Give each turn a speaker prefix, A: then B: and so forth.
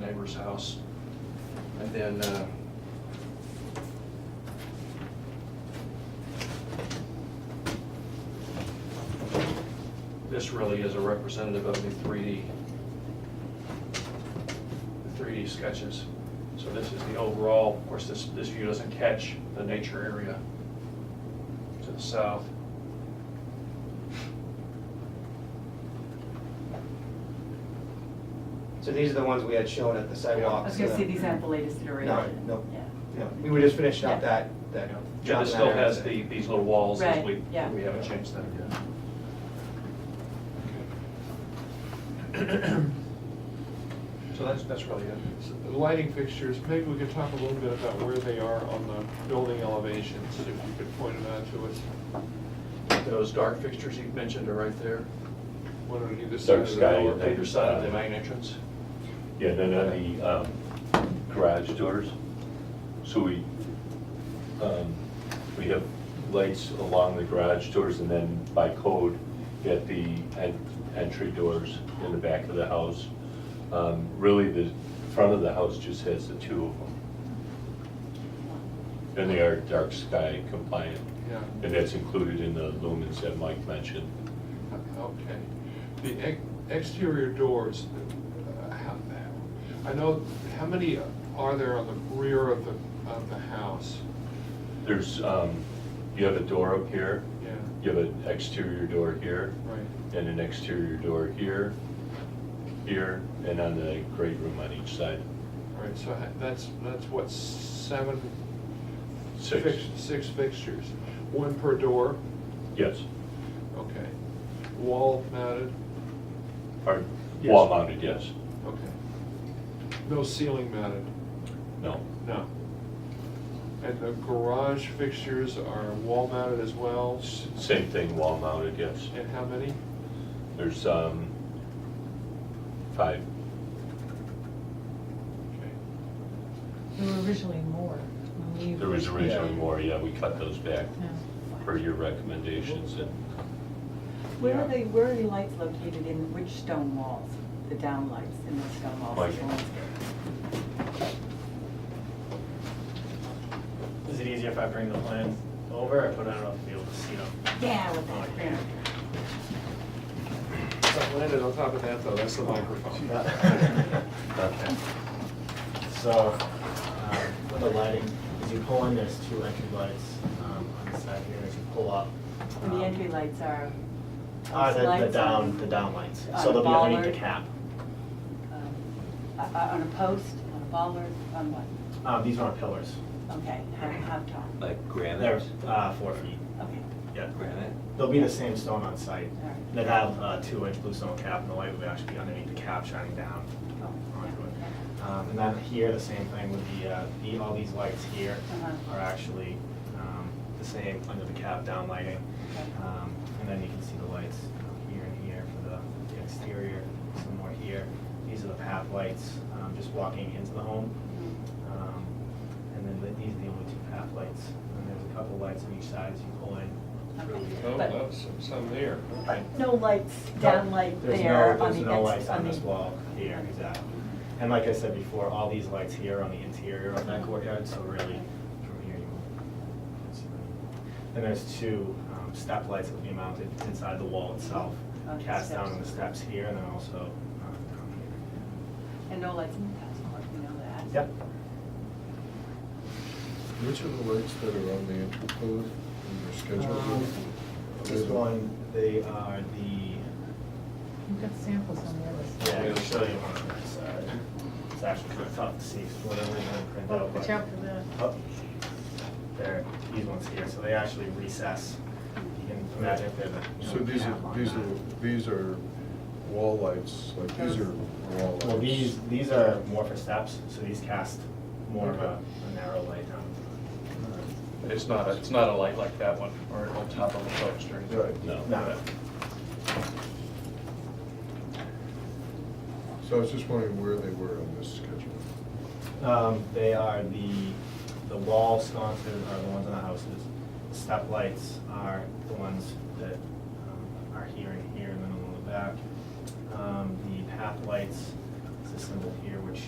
A: neighbor's house. And then, uh, this really is a representative of the 3D, the 3D sketches. So this is the overall, of course, this, this view doesn't catch the nature area to the south.
B: So these are the ones we had shown at the
A: I
B: sidewalk.
C: I was gonna say, these aren't the latest
B: No,
C: iteration.
B: no.
C: Yeah.
B: Yeah, we were just finishing up
C: Yeah.
B: that, that.
A: Yeah, this still has the, these little walls, as we,
C: Right, yeah.
A: we haven't changed that yet. So that's, that's really it.
D: So the Lighting fixtures, maybe we could talk a little bit about where they are on the building elevations, if you could point them out to us,
A: Those dark fixtures you mentioned are right there,
D: one on either side
E: Dark
D: of the
E: sky.
D: building.
A: either side of the main entrance.
E: Yeah, and then on the um, garage doors, so we, um, we have lights along the garage doors and then by code at the en- entry doors in the back of the house. Um, Really, the front of the house just has the two of them. And they are dark sky compliant,
D: Yeah,
E: and that's included in the lumens that Mike mentioned.
D: okay. The ex- exterior doors, uh, how, I know, how many are there on the rear of the, of the house?
E: There's, um, you have a door up here,
D: Yeah,
E: you have an exterior door here,
D: right.
E: and an exterior door here, here, and on the great room on each side.
D: All right, so ha- that's, that's what, seven?
E: Six.
D: fix- Six fixtures, one per door,
E: Yes,
D: okay. Wall mounted,
E: or
D: Yes.
E: wall mounted, yes.
D: okay. No ceiling mounted,
E: No,
D: no. And the garage fixtures are wall mounted as well,
E: S- same thing, wall mounted, yes.
D: and how many?
E: There's um, five,
D: Okay.
F: There were originally more. when we
E: there was
F: originally-
E: originally more, yeah, we cut those back
F: Yeah.
E: per your recommendations, and
C: Where are
D: Yeah.
C: they, where are the lights located in which stone walls, the down lights in the stone walls?
E: Mike.
G: Is it easier if I bring the plans over? I put it on enough to be able to see them. Oh,
C: Yeah, with that, yeah.
D: Landed on top of that though, that's the microphone.
G: Uh, So, um, with the lighting, as you pull in, there's two entry lights um, on the side here, as you pull up.
C: And the
G: um,
C: entry lights are?
G: Are Ah,
C: those
G: the- the
C: lights
G: down,
C: on- Uh,
G: the down lights,
C: on
G: so
C: a
G: they'll be underneath
C: bollard?
G: the cap.
C: um, uh, uh, On a post, on a bollard, on what?
G: Uh, These aren't pillars.
C: Okay, how, how tall?
H: Like
G: They're
H: granite,
G: uh, four feet.
C: Okay,
G: Yeah,
H: granite?
G: they'll be the same stone on site.
C: all right.
G: They'll have uh, a two-inch bluestone cap, and the light will actually be underneath the cap shining down
C: Oh,
G: onto it.
C: yeah,
G: Um, And then here, the same thing with the, uh, the, all these lights here
C: Uh-huh.
G: are actually um, the same under the cap down lighting.
C: Okay.
G: Um, And then you can see the lights here and here for the the exterior, some more here. These are the path lights, um, just walking into the home.
C: yeah.
G: Um, And then the- these are the only two path lights. And there's a couple lights on each side as you pull in.
C: Okay.
D: Oh,
C: But-
D: that's some there.
C: But no lights, down light
G: There's no-
C: there on
G: There's no
C: the ex,
G: lights
C: on
G: on
C: the.
G: this wall here, exactly. And like I said before, all these lights here are on the interior of that courtyard, so really, from here you won't. Then there's two um, step lights that will be mounted inside the wall itself,
C: On Oh, the
G: cast down on the
C: steps.
G: steps here and then also um, down here.
C: And no lights in the house, of course, we know that.
G: Yep.
I: Which of the lights that are on the entry code in your schedule?
G: Um, This one, they are
F: We've got samples on the other
G: the, yeah, I
F: side.
G: can show you one on that side. It's actually kind of tough to see, because one of them is printed
F: Oh,
G: out.
F: watch
G: but-
F: out for that.
G: up there, these ones here, so they actually recess. You can imagine if they're the. you know,
I: So these
G: cap
I: are,
G: on
I: these
G: that.
I: are, these are wall lights, like these are wall lights.
G: Well, these, these are more for steps, so these cast more of a a narrow light um, down.
A: It's not, a- it's not a light like that one, or on top of a post or anything.
I: Right,
E: no.
G: Now,
I: so I was just wondering where they were on this schedule.
G: um, they are the, the wall sconces are the ones on the houses. The Step lights are the ones that um, are here and here, and then on the back. Um, The path lights, it's a symbol here, which